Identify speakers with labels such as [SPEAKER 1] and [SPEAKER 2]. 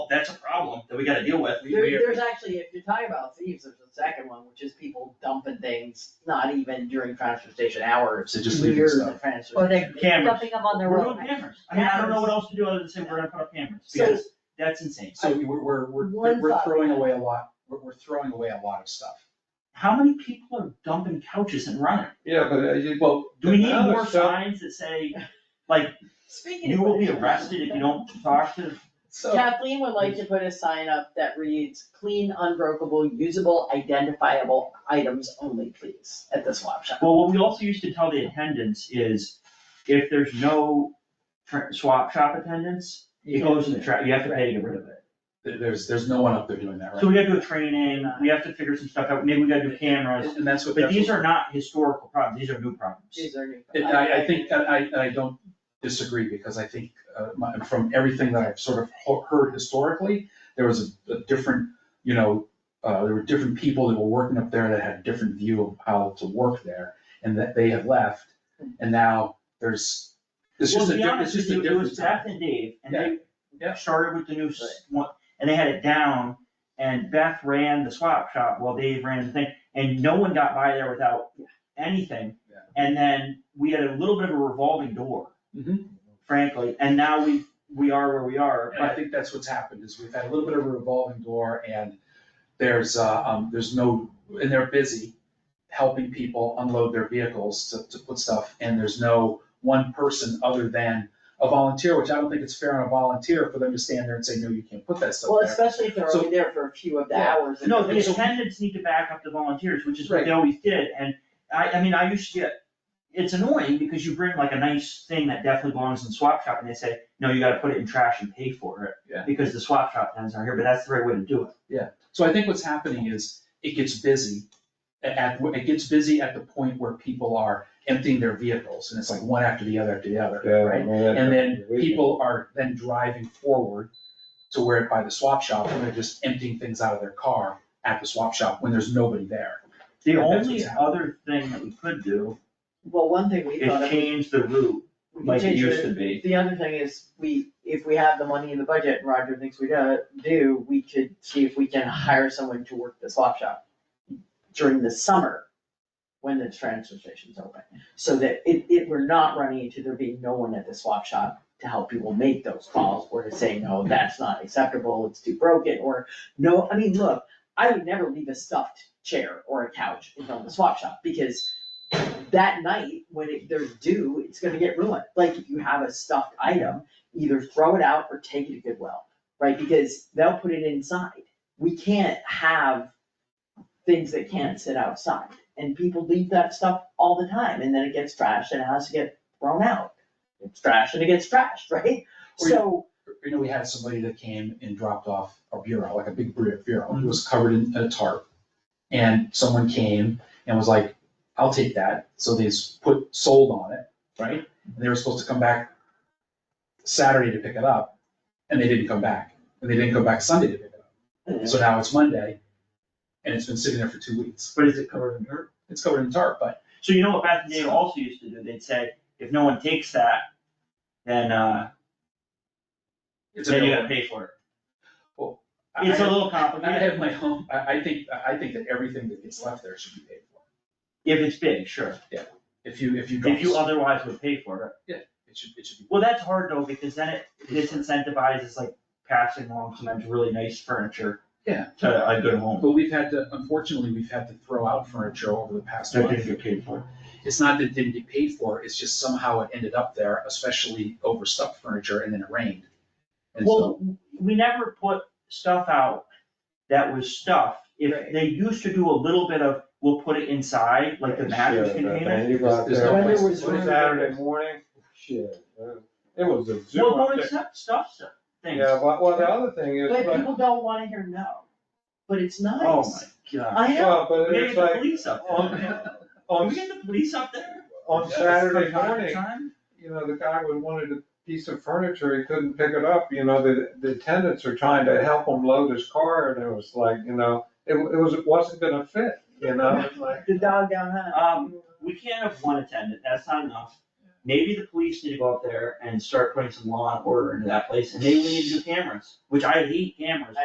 [SPEAKER 1] that's a problem that we gotta deal with. We-
[SPEAKER 2] There,
[SPEAKER 1] we-
[SPEAKER 2] there's actually, if you're talking about thieves, there's a second one, which is people dumping things, not even during transfer station hours.
[SPEAKER 3] They just leave the
[SPEAKER 2] near the
[SPEAKER 3] stuff.
[SPEAKER 2] transfer
[SPEAKER 4] Or
[SPEAKER 2] station.
[SPEAKER 4] they're
[SPEAKER 1] Cameras.
[SPEAKER 4] dumping them on the
[SPEAKER 1] We're
[SPEAKER 4] road.
[SPEAKER 1] doing cameras. I mean, I don't know what else to do other than say we're gonna put up cameras,
[SPEAKER 2] So-
[SPEAKER 1] because that's insane.
[SPEAKER 3] So we're, we're, we're,
[SPEAKER 2] One
[SPEAKER 3] we're
[SPEAKER 2] thought.
[SPEAKER 3] throwing away a lot, we're, we're throwing away a lot of stuff.
[SPEAKER 1] How many people are dumping couches and running?
[SPEAKER 5] Yeah, but uh, you.
[SPEAKER 3] Well,
[SPEAKER 1] Do we need
[SPEAKER 5] Now the
[SPEAKER 1] more
[SPEAKER 5] stuff-
[SPEAKER 1] signs that say, like,
[SPEAKER 2] Speaking of.
[SPEAKER 1] you will be
[SPEAKER 2] which-
[SPEAKER 1] arrested if you don't talk to,
[SPEAKER 3] so,
[SPEAKER 2] Kathleen would like to put a sign up that reads, clean, unbreakable, usable, identifiable items only, please, at the swap shop.
[SPEAKER 1] well, what we also used to tell the attendants is, if there's no tra- swap shop attendance, it goes in the trash, you have to pay to get rid of it.
[SPEAKER 3] there- there's, there's no one up there doing that,
[SPEAKER 1] So
[SPEAKER 3] right?
[SPEAKER 1] we gotta do a training, we have to figure some stuff out, maybe we gotta do cameras,
[SPEAKER 3] And that's what,
[SPEAKER 1] but
[SPEAKER 3] that's
[SPEAKER 1] these
[SPEAKER 3] what,
[SPEAKER 1] are not historical problems, these are new problems.
[SPEAKER 2] These are new.
[SPEAKER 3] and I, I think, and I, and I don't disagree, because I think, uh, my, from everything that I've sort of ho- heard historically, there was a, a different, you know, uh, there were different people that were working up there that had a different view of how to work there, and that they have left, and now there's, it's
[SPEAKER 1] Well,
[SPEAKER 3] just
[SPEAKER 1] to
[SPEAKER 3] a,
[SPEAKER 1] be
[SPEAKER 3] di- it's
[SPEAKER 1] honest
[SPEAKER 3] just
[SPEAKER 1] with
[SPEAKER 3] a
[SPEAKER 1] you,
[SPEAKER 3] different.
[SPEAKER 1] It was Beth and Dave, and
[SPEAKER 3] Yeah,
[SPEAKER 1] they
[SPEAKER 3] yeah.
[SPEAKER 1] started with the new s- one, and they had it down, and Beth ran the swap shop while Dave ran the thing, and no one got by there without anything.
[SPEAKER 3] Yeah.
[SPEAKER 1] And then we had a little bit of a revolving door,
[SPEAKER 3] Mhm.
[SPEAKER 1] frankly, and now we, we are where we are,
[SPEAKER 3] And I
[SPEAKER 1] but
[SPEAKER 3] think that's what's happened, is we've had a little bit of a revolving door and there's, uh, um, there's no, and they're busy helping people unload their vehicles to, to put stuff, and there's no one person other than a volunteer, which I don't think it's fair on a volunteer for them to stand there and say, no, you can't put that stuff
[SPEAKER 2] Well,
[SPEAKER 3] there.
[SPEAKER 2] especially if they're
[SPEAKER 3] So-
[SPEAKER 2] only there for a few of the
[SPEAKER 3] Yeah.
[SPEAKER 2] hours. and-
[SPEAKER 1] No, the
[SPEAKER 3] And so-
[SPEAKER 1] attendants need to back up the volunteers, which is what
[SPEAKER 3] Right.
[SPEAKER 1] they always did, and I, I mean, I used to get, it's annoying because you bring like a nice thing that definitely belongs in the swap shop and they say, no, you gotta put it in trash and pay for it.
[SPEAKER 3] Yeah.
[SPEAKER 1] Because the swap shop tents are here, but that's the right way to do it.
[SPEAKER 3] So I think what's happening is it gets busy at- at, it gets busy at the point where people are emptying their vehicles, and it's like one after the other after the other, right? And then people are then driving forward to where by the swap shop, and they're just emptying things out of their car at the swap shop when there's nobody there.
[SPEAKER 1] The
[SPEAKER 3] That's what's
[SPEAKER 1] only
[SPEAKER 3] happening.
[SPEAKER 1] other thing that we could do
[SPEAKER 2] Well, one thing we thought
[SPEAKER 1] is
[SPEAKER 2] of.
[SPEAKER 1] change the route
[SPEAKER 2] we
[SPEAKER 1] like it
[SPEAKER 2] changed
[SPEAKER 1] used to be.
[SPEAKER 2] The other thing is, we, if we have the money in the budget, and Roger thinks we do, do, we could see if we can hire someone to work the swap shop during the summer, when the transfer station's open, so that it, it, we're not running into there being no one at the swap shop to help people make those calls, or to say, no, that's not acceptable, it's too broken, or, no, I mean, look, I would never leave a stuffed chair or a couch in front of the swap shop, because that night, when it, they're due, it's gonna get ruined. Like, if you have a stuffed item, either throw it out or take it to Goodwill, right? Because they'll put it inside. We can't have things that can't sit outside. And people leave that stuff all the time, and then it gets trashed and it has to get thrown out. It's trashed and it gets trashed, right?
[SPEAKER 3] Or you-
[SPEAKER 2] So,
[SPEAKER 3] You know, we had somebody that came and dropped off a bureau, like a big bu- bureau, and it was covered in a tarp. And someone came and was like, I'll take that, so they s- put sold on it, right? And they were supposed to come back Saturday to pick it up, and they didn't come back, and they didn't come back Sunday to pick it up. So now it's Monday, and it's been sitting there for two weeks.
[SPEAKER 1] But is it covered in dirt?
[SPEAKER 3] it's covered in tarp, but
[SPEAKER 1] So you know what Beth and Dave also used to do? They'd say, if no one takes that, then, uh,
[SPEAKER 3] it's
[SPEAKER 1] then you gotta
[SPEAKER 3] available.
[SPEAKER 1] pay for it.
[SPEAKER 3] I-
[SPEAKER 1] It's a
[SPEAKER 3] I-
[SPEAKER 1] little
[SPEAKER 3] I
[SPEAKER 1] complicated
[SPEAKER 3] have my home, I, I think, I think that everything that gets left there should be paid for.
[SPEAKER 1] if it's big, sure.
[SPEAKER 3] If you, if you drop,
[SPEAKER 1] If you
[SPEAKER 3] it
[SPEAKER 1] otherwise would pay for it.
[SPEAKER 3] should, it should be.
[SPEAKER 1] Well, that's hard though, because then it disincentivizes like passing along sometimes really nice furniture.
[SPEAKER 3] Yeah.
[SPEAKER 1] To a good home.
[SPEAKER 3] But we've had to, unfortunately, we've had to throw out furniture over the past
[SPEAKER 1] That didn't
[SPEAKER 3] month.
[SPEAKER 1] get paid for.
[SPEAKER 3] It's not that it didn't get paid for, it's just somehow it ended up there, especially overstuffed furniture, and then it rained. And so,
[SPEAKER 1] Well, we never put stuff out that was stuffed. If
[SPEAKER 2] Right.
[SPEAKER 1] they used to do a little bit of, we'll put it inside, like the mattress
[SPEAKER 5] uh,
[SPEAKER 1] container.
[SPEAKER 3] there's no
[SPEAKER 2] When there
[SPEAKER 3] place to
[SPEAKER 2] was
[SPEAKER 3] put it.
[SPEAKER 2] one-
[SPEAKER 5] Saturday morning, shit, uh, it was a zoo.
[SPEAKER 1] Well,
[SPEAKER 5] up
[SPEAKER 1] don't
[SPEAKER 5] there.
[SPEAKER 1] accept stuff, stuff, things.
[SPEAKER 5] Yeah, well, well, the other thing is,
[SPEAKER 2] but
[SPEAKER 5] like,
[SPEAKER 2] people don't wanna hear no, but it's nice.
[SPEAKER 1] Oh my god.
[SPEAKER 2] I know,
[SPEAKER 5] well, but
[SPEAKER 1] We gotta
[SPEAKER 5] it's
[SPEAKER 1] get the
[SPEAKER 5] like,
[SPEAKER 1] police up there.
[SPEAKER 5] on,
[SPEAKER 1] Can we
[SPEAKER 5] on,
[SPEAKER 1] get the police up there?
[SPEAKER 5] on
[SPEAKER 3] Yeah,
[SPEAKER 5] Saturday
[SPEAKER 1] From time to
[SPEAKER 5] morning,
[SPEAKER 1] time?
[SPEAKER 5] you know, the guy would wanted a piece of furniture, he couldn't pick it up, you know, the, the attendants are trying to help him load his car, and it was like, you know, it, it was, it wasn't gonna fit, you know, it's like.
[SPEAKER 2] the dog down high.
[SPEAKER 1] Um, We can't have one attendant, that's not enough. maybe the police need to go up there and start putting some law and order into that place, and maybe we need to do cameras, which I hate cameras.